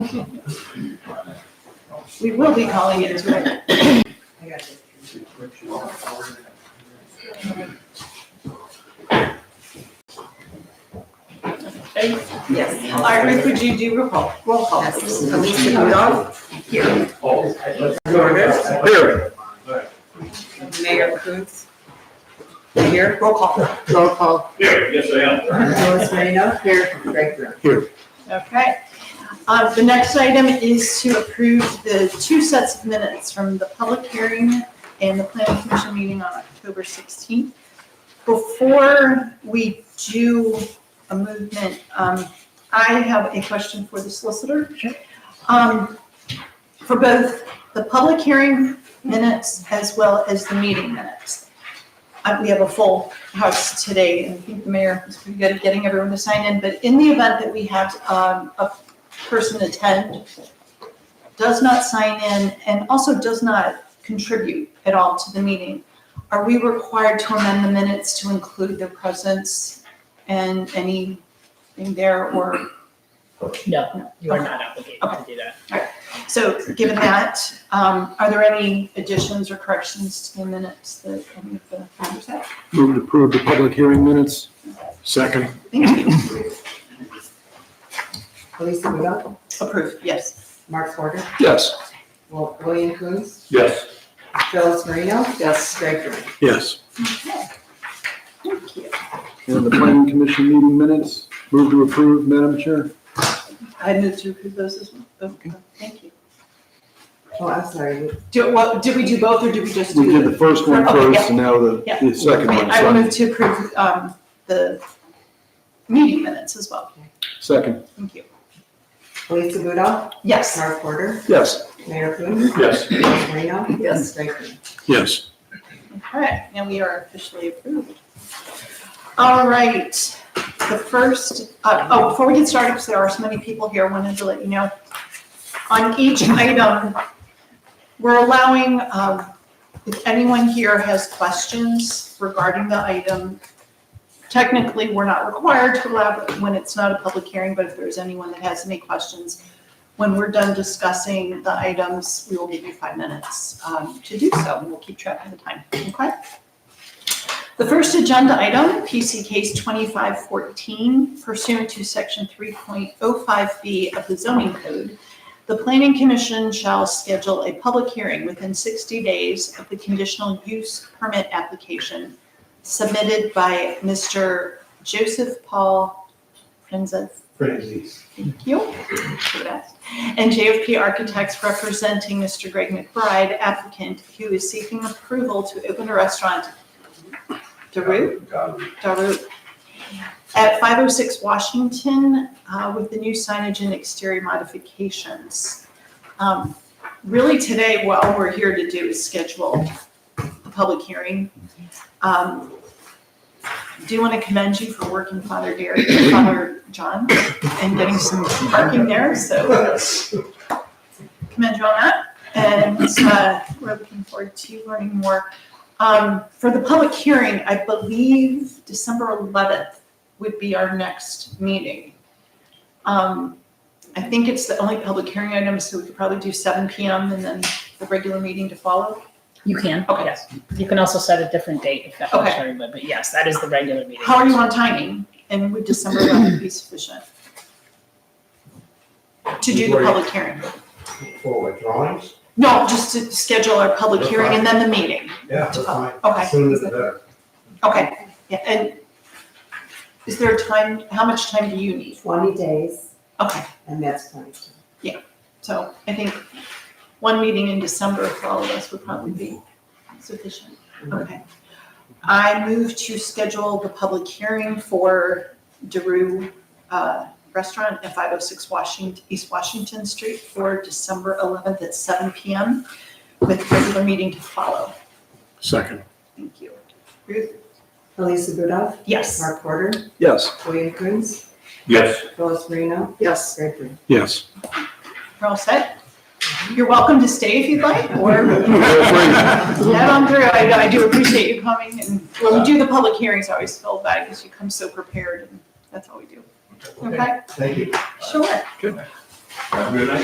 We will be calling it as written. I got you. Yes, Iris, would you do roll call, roll call? please? Elisa Rudolph, Here. Norberg, Mayor Coontz, here, roll call. roll call, Here, yes, I am. Louis Marino, here, Greg Brown. Okay. Uh, the next item is to approve the two sets of minutes from the public hearing and the planning commission meeting on October sixteenth. Before we do a movement, um, I have a question for the solicitor. Sure. Um, for both the public hearing minutes as well as the meeting minutes. Uh, we have a full house today, and I think the mayor was pretty good at getting everyone to sign in, but in the event that we have, um, a person attend, does not sign in, and also does not contribute at all to the meeting, are we required to amend the minutes to include their presence and anything there, or, No, you are not obligated to do that. so, given that, um, are there any additions or corrections to the minutes that any of the members have? Move to approve the public hearing minutes. Second. Thank you, Elisa Rudolph, approved, yes, Mark Porter, Yes. Wil- William Coontz, Yes. Phyllis Marino, yes, Greg Brown. Yes. thank you. And the planning commission meeting minutes, move to approve, Madam Chair? I move to approve those as well. Okay, thank you. Oh, I'm sorry, Do, what, did we do both or did we just do? We did the first one Okay, first and now the, yeah. the second one. I will so- move to approve, um, the meeting minutes as well. Second. Thank you. Elisa Rudolph, Yes, Mark Porter, Yes. Mayor Coontz, Yes. Phyllis Marino, Yes. Greg Brown. Yes. okay, now we are officially approved. All right, the first, uh, oh, before we get started, because there are so many people here, I wanted to let you know. On each item, we're allowing, um, if anyone here has questions regarding the item, technically, we're not required to allow it when it's not a public hearing, but if there's anyone that has any questions, when we're done discussing the items, we will give you five minutes um, to do so, and we'll keep track of the time, okay? The first agenda item, PC case 2514 pursuant to section 3.05B of the zoning code, the planning commission shall schedule a public hearing within 60 days of the conditional use permit application submitted by Mr. Joseph Paul Franzes. Thank you. Should have asked. And JFP Architects representing Mr. Greg McBride, applicant who is seeking approval to open a restaurant, Daru, Daru, at 506 Washington uh, with the new signage and exterior modifications. Um, Really today, what we're here to do is schedule a public hearing. Um, Do want to commend you for working Father Derek, Father John, and getting some parking there, so commend you on that. And uh, we're looking forward to learning more. Um, For the public hearing, I believe December 11th would be our next meeting. Um, I think it's the only public hearing item, so we could probably do 7 PM and then the regular meeting to follow. You can, Okay. yes. You can also set a different date if that Okay. works for everybody, but yes, that is the regular meeting. How are you on timing? And would December 11th be sufficient? To do the public hearing? For what, drawings? No, just to schedule our public hearing and then the meeting. Yeah, that's fine. Okay. Sooner the better. Okay, yeah, and is there a time, how much time do you need? Twenty days, Okay, and that's twenty. so I think one meeting in December for all of us would probably be sufficient. Okay. I move to schedule the public hearing for Daru uh, Restaurant at 506 Washington, East Washington Street for December 11th at 7 PM with regular meeting to follow. Second. Thank you. Ruth? Elisa Rudolph, Yes. Mark Porter, Yes. William Coontz, Yes. Phyllis Marino, Yes. Greg Brown. Yes. You're all set? You're welcome to stay if you'd like, or head on through. I, I do appreciate you coming, and when we do the public hearings, I always feel bad because you come so prepared, and that's all we do. Okay, Thank you. sure. Have a good night.